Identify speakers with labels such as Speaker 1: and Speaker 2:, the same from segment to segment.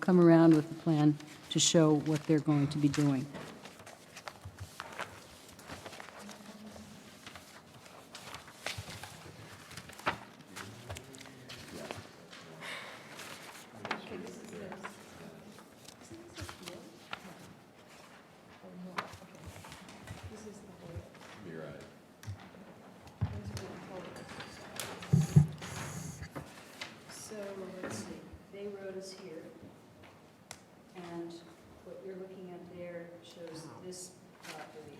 Speaker 1: come around with a plan to show what they're going to be doing.
Speaker 2: So, let's see, Bay Road is here, and what you're looking at there shows this property,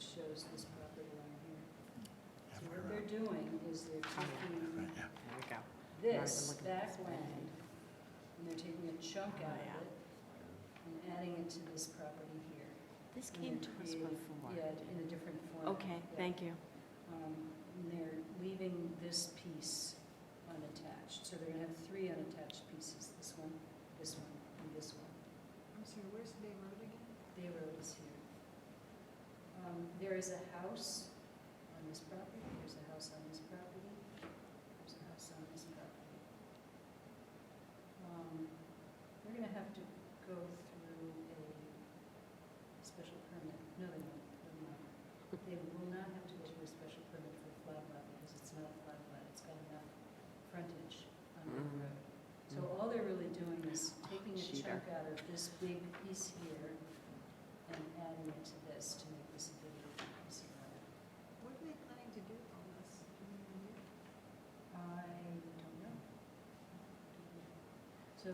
Speaker 2: shows this property line here. So what they're doing is they're taking
Speaker 3: There
Speaker 2: this back land, and they're taking a chunk out of it, and adding it to this property here.
Speaker 3: This
Speaker 2: And
Speaker 3: came to
Speaker 2: they're
Speaker 3: us
Speaker 2: creating-
Speaker 3: before.
Speaker 2: Yeah, in a different format.
Speaker 3: Okay,
Speaker 2: yeah.
Speaker 3: thank you.
Speaker 2: Um, And they're leaving this piece unattached, so they're gonna have three unattached pieces, this one, this one, and this one.
Speaker 4: I'm sorry, where's Bay Road again?
Speaker 2: Bay Road is here. Um, There is a house on this property, there's a house on this property, there's a house on this property. Um, They're gonna have to go through a special permit, no, they won't, they're not. They will not have to go through a special permit for a flag lot, because it's not a flag lot, it's got enough frontage on the
Speaker 3: Mm.
Speaker 2: road. So all they're really doing is taking a
Speaker 3: Cheater.
Speaker 2: chunk out of this big piece here and adding it to this to make this a bigger piece of it.
Speaker 4: What are they planning to do on this? Do you know yet?
Speaker 2: I don't know. So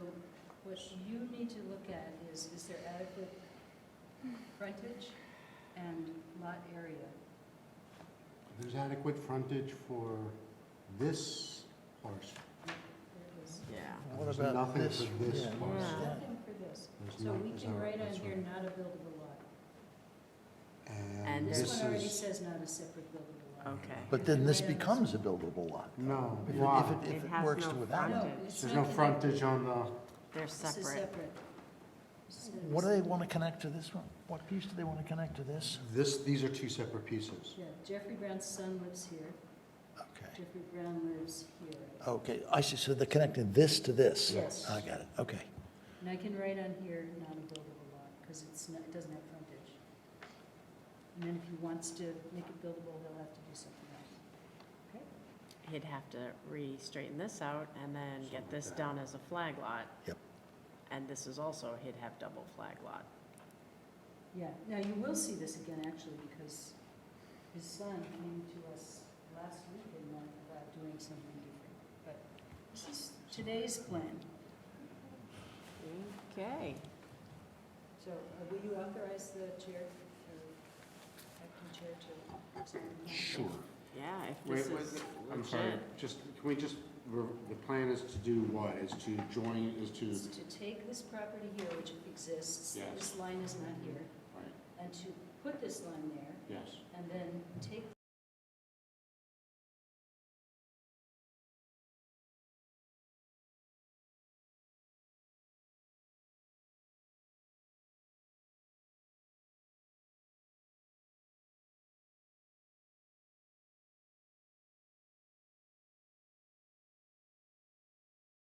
Speaker 2: what you need to look at is, is there adequate frontage and lot area?
Speaker 5: There's adequate frontage for this parcel.
Speaker 2: There is
Speaker 3: Yeah.
Speaker 5: There's nothing for this
Speaker 3: yeah.
Speaker 5: parcel.
Speaker 2: nothing for this.
Speaker 5: There's
Speaker 2: So
Speaker 5: not-
Speaker 2: we
Speaker 5: there's
Speaker 2: can
Speaker 5: not-
Speaker 2: write on
Speaker 5: that's
Speaker 2: here,
Speaker 5: right.
Speaker 2: not a buildable lot.
Speaker 3: And
Speaker 5: And
Speaker 2: This
Speaker 5: this
Speaker 2: one already
Speaker 5: is,
Speaker 2: says not a separate buildable lot.
Speaker 3: Okay.
Speaker 6: But then this becomes a buildable lot.
Speaker 5: no,
Speaker 6: If it-
Speaker 5: why?
Speaker 6: If it, if
Speaker 3: It
Speaker 6: it
Speaker 3: has
Speaker 6: works
Speaker 3: no
Speaker 6: to that.
Speaker 2: No,
Speaker 3: frontage.
Speaker 2: it's
Speaker 5: There's
Speaker 2: not
Speaker 5: no
Speaker 2: connected.
Speaker 5: frontage on the,
Speaker 3: They're
Speaker 2: This is
Speaker 3: separate.
Speaker 2: This is
Speaker 6: What do they
Speaker 2: separate.
Speaker 6: want to connect to this one? What piece do they want to connect to this?
Speaker 5: this, these are two separate pieces.
Speaker 2: Yeah, Jeffrey Brown's son lives here,
Speaker 6: Okay,
Speaker 2: Jeffrey Brown lives here.
Speaker 6: okay, I see, so they're connecting this to this?
Speaker 2: Yes.
Speaker 6: I got it, okay.
Speaker 2: And I can write on here, not a buildable lot, because it's not, it doesn't have frontage. And then if he wants to make it buildable, he'll have to do something else.
Speaker 3: He'd have to re-straighten this out and then
Speaker 5: Something
Speaker 3: get
Speaker 5: like
Speaker 3: this
Speaker 5: that.
Speaker 3: done as a flag lot.
Speaker 6: Yep.
Speaker 3: And this is also, he'd have double flag lot.
Speaker 2: Yeah, now you will see this again, actually, because his son came to us last week and wanted about doing something different. But this is today's plan.
Speaker 3: Okay.
Speaker 2: So uh, will you authorize the chair, or acting chair to sign the plan?
Speaker 5: Sure.
Speaker 3: Yeah, if
Speaker 5: Wait,
Speaker 3: this
Speaker 5: wait,
Speaker 3: is
Speaker 5: I'm sorry,
Speaker 3: legit.
Speaker 5: just, can we just, re- the plan is to do what? Is to join, is to,
Speaker 2: Is to take this property here, which exists,
Speaker 5: Yes.
Speaker 2: this line is not here,
Speaker 5: right,
Speaker 2: and to put this line there,
Speaker 5: yes.
Speaker 2: and then take